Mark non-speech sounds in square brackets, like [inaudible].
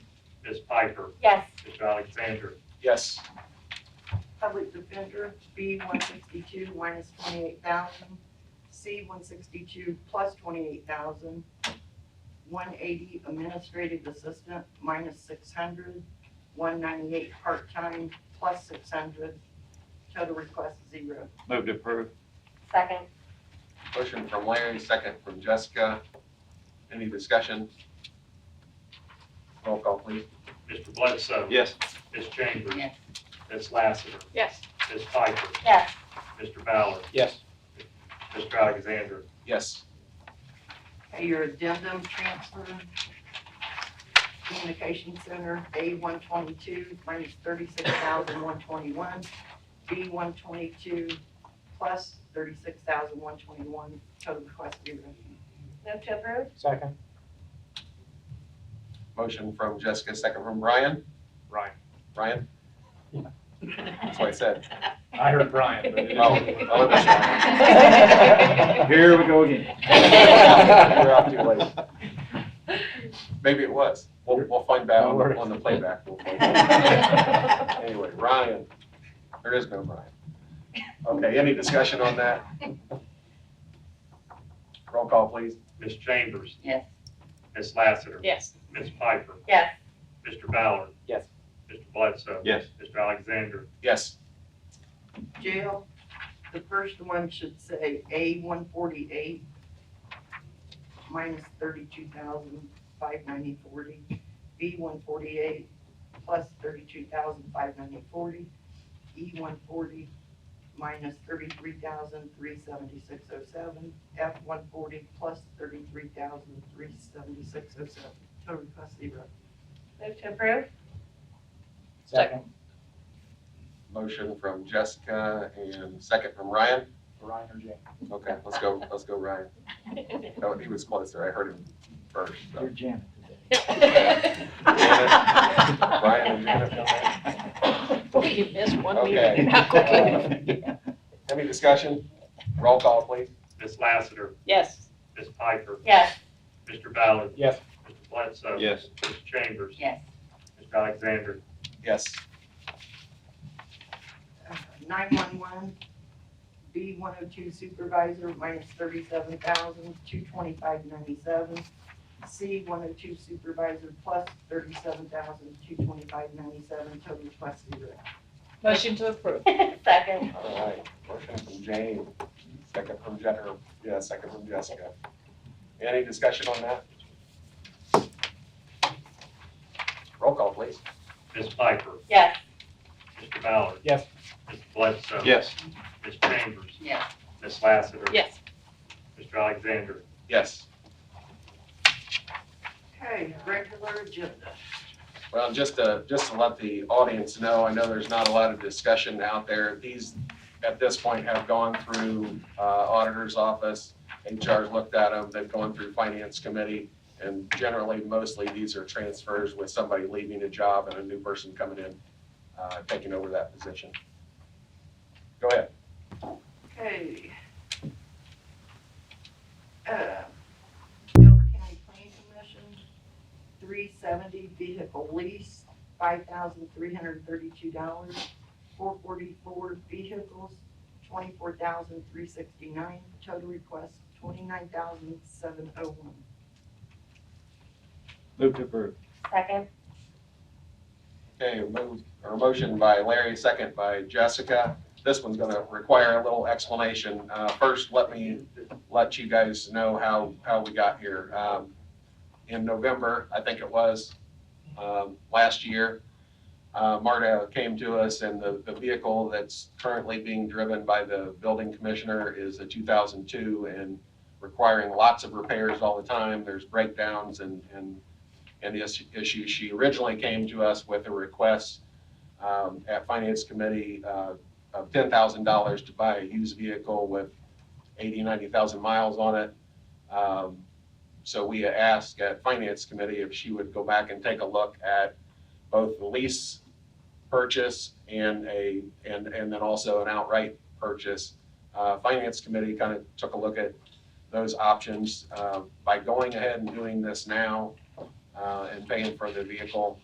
Ms. Piper, Yes. Mr. Alexander, Yes. Public defender, B one sixty-two minus twenty-eight thousand, C one sixty-two plus twenty-eight thousand, one eighty administrative assistant minus six hundred, one ninety-eight part-time plus six hundred, total request zero. Move to approve. Second. Motion from Larry, second from Jessica. Any discussion? Roll call, please. Mr. Bledsoe, Yes. Ms. Chambers, Yes. Ms. Lassiter, yes, Ms. Piper, Yes. Mr. Ballard, Yes. Mr. Alexander, Yes. Okay, your addendum transfer, communication center, A one twenty-two minus thirty-six thousand one twenty-one, B one twenty-two plus thirty-six thousand one twenty-one, total request zero. Move to approve? Second. Motion from Jessica, second from Brian. Ryan. Brian? That's what I said. I heard Brian, but it Oh, is. oh, it was [laughs] Brian. Here we [laughs] go again. We're out too late. Maybe it was. We'll, we'll find out on the- on the playback. We'll find out. Anyway, Ryan, there is no Ryan. Okay, any discussion on that? Roll call, please. Ms. Chambers, Yes. Ms. Lassiter, yes, Ms. Piper, Yes. Mr. Ballard. Yes. Mr. Bledsoe. Yes. Mr. Alexander, Yes. Jail, the first one should say A one forty-eight minus thirty-two thousand five ninety forty, B one forty-eight plus thirty-two thousand five ninety forty, E one forty minus thirty-three thousand three seventy-six oh seven, F one forty plus thirty-three thousand three seventy-six oh seven, total request zero. Move to approve? Second. Motion from Jessica and second from Ryan. Brian or Jane? Okay, let's go, let's go Ryan. Oh, he was closer. I heard him first. so. Janet Ryan and Janet. boy, you missed one Okay. meeting, [laughs] [laughs] how quickly, Any discussion? Roll call, please. Ms. Lassiter, yes, Ms. Piper, Yes. [laughs] Mr. Ballard, Yes. Mr. Bledsoe. Yes. Ms. Chambers, Yes. Mr. Alexander, Yes. 911, B 102 supervisor minus 37,225.97, C 102 supervisor plus 37,225.97, total request zero. motion to approve, Second. All right, motion from Jane, second from Je, or, yeah, second from Jessica. Any discussion on that? Roll call, please. Ms. Piper, Yes. Mr. Ballard. Yes. Mr. Bledsoe. Yes. Ms. Chambers, Yes. Ms. Lassiter. yes, Mr. Alexander, Yes. Okay, regular agenda. Well, just to, just to let the audience know, I know there's not a lot of discussion out there. These, at this point, have gone through uh, auditor's office. HR's looked at them, they've gone through finance committee, and generally, mostly, these are transfers with somebody leaving a job and a new person coming in, uh, taking over that position. Go ahead. Okay. Uh, Delaware County Planning Commission, three seventy vehicle lease, five thousand three hundred thirty-two dollars. Four forty-four vehicles, twenty-four thousand three sixty-nine, total request twenty-nine thousand seven oh one. Move to approve. Second. Okay, move, or motion by Larry, second by Jessica. This one's gonna require a little explanation. Uh, first, let me let you guys know how, how we got here. Um, in November, I think it was, um, last year, uh, Marta came to us and the, the vehicle that's currently being driven by the building commissioner is a two thousand two and requiring lots of repairs all the time. There's breakdowns and, and, and the is- issue. She originally came to us with a request, um, at finance committee, uh, of ten thousand dollars to buy a used vehicle with 80, 90,000 miles on it. Um, So we asked at Finance Committee if she would go back and take a look at both the lease purchase and a, and, and then also an outright purchase. Uh, Finance Committee kind of took a look at those options. Uh, By going ahead and doing this now uh, and paying for the vehicle,